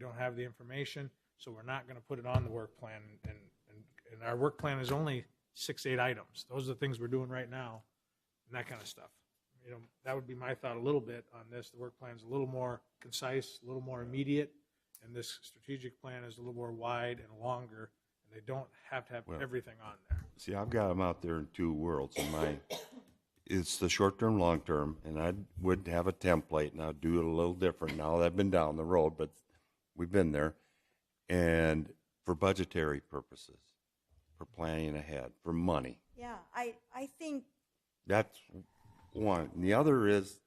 don't have the information, so we're not going to put it on the work plan. And, and, and our work plan is only six, eight items. Those are the things we're doing right now and that kind of stuff. You know, that would be my thought a little bit on this. The work plan's a little more concise, a little more immediate, and this strategic plan is a little more wide and longer, and they don't have to have Well- everything on there. See, I've got them out there in two worlds. In my, it's the short term, long term, and I would have a template, and I'd do it a little different now that I've been down the road, but we've been there. And for budgetary purposes, for planning ahead, for money. Yeah, I, I think, That's one. And the other is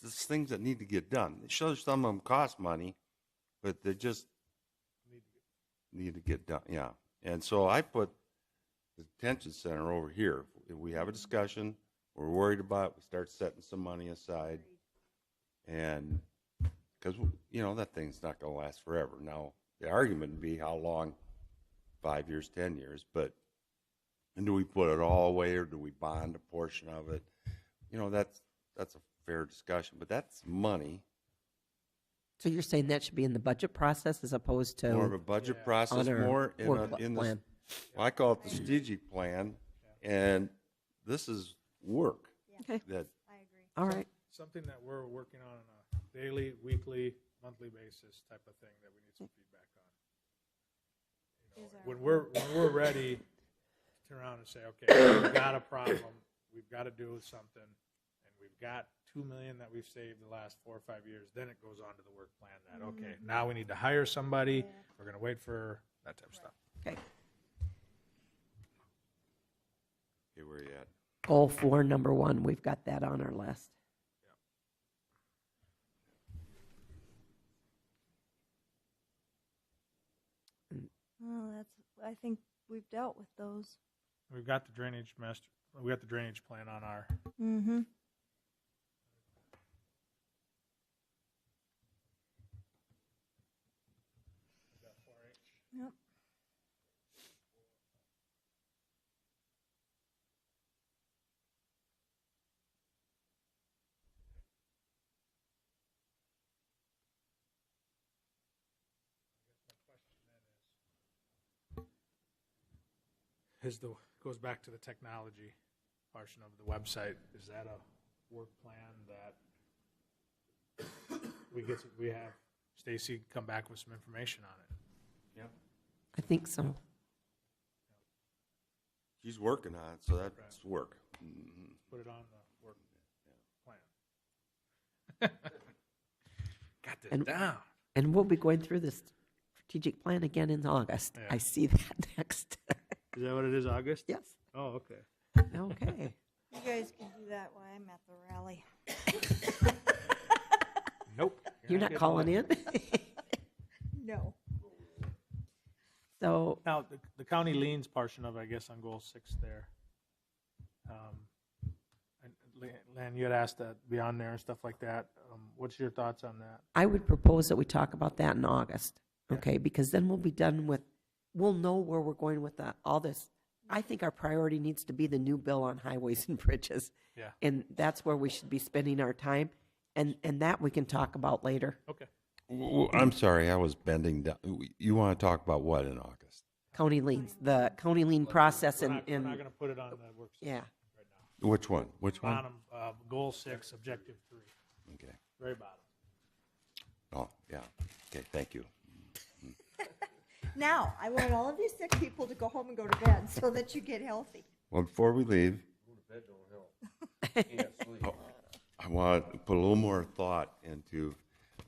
just things that need to get done. Sure, some of them cost money, but they just need to get done. Yeah. And so I put the detention center over here. If we have a discussion, we're worried about, it, we start setting some money aside. And because, you know, that thing's not going to last forever. Now, the argument would be how long five years, 10 years, but and do we put it all away or do we bond a portion of it? You know, that's that's a fair discussion, but that's money. So you're saying that should be in the budget process as opposed to more of a budget Yeah. process, on our more in, work a, in the, plan. well, I call it the strategic plan, and this is work okay? that I agree. All right. Something that we're working on on a daily, weekly, monthly basis type of thing that we need some feedback on. You know, Is our- When we're, when we're ready, to turn around and say, okay, we've got a problem, we've got to do something, and we've got two million that we've saved the last four or five years, then it goes on to the work plan that, okay, now we need to hire somebody, we're gonna wait for that type of stuff. Okay. okay, where you at? Goal four, number one, we've got that on our list. Well, Oh, that's, I think we've dealt with those. We've got the drainage master, we got the drainage plan on our, Mm-hmm. Yep. is the, goes back to the technology portion of the website. Is that a work plan that we get, we have Stacy come back with some information on it? I think so. She's working on it, so that's work. Mm-hmm. Put it on the work plan. Got this And- down. And we'll be going through this strategic plan again in August. Yeah. I see that next. Is that what it is, August? yes. Oh, okay. Okay. You guys can do that while I'm at the rally. Nope. You're not getting calling that. in? No. so Now, the, the county liens portion of, it, I guess, on goal six there. Um, and Lan- Lan, you had asked that beyond there and stuff like that. Um, What's your thoughts on that? I would propose that we talk about that in August, okay? Because then we'll be done with, we'll know where we're going with that, all this. I think our priority needs to be the new bill on highways and bridges. Yeah. And that's where we should be spending our time, and, and that we can talk about later. Okay. W- w- I'm sorry, I was bending down. You want to talk about what in August? County liens, the county lien process We're and, not, we're not and, gonna put it on the works. yeah. Which one? Which one? Bottom, uh, goal six, objective three, Okay. very bottom. Oh, yeah. Okay, thank you. Now, I want all of you sick people to go home and go to bed so that you get healthy. Well, before we leave, I want to put a little more thought into,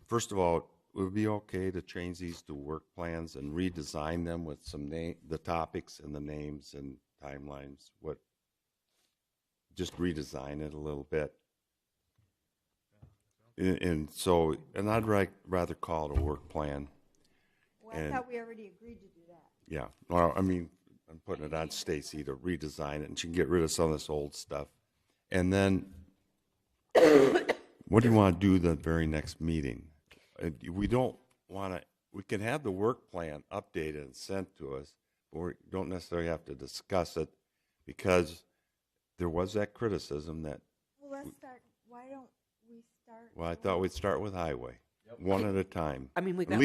first of all, would it be okay to change these to work plans and redesign them with some name, the topics and the names and timelines? What, just redesign it a little bit? And, and so, and I'd ri- rather call it a work plan. Well, I And- thought we already agreed to do that. Yeah, well, I mean, I'm putting it on Stacy to redesign it, and she can get rid of some of this old stuff. And then, what do you want to do the very next meeting? Uh, We don't want to, we can have the work plan updated and sent to us, but we don't necessarily have to discuss it, because there was that criticism that, Well, let's start, why don't we start? well, I thought we'd start with highway, one at a time. I mean, we got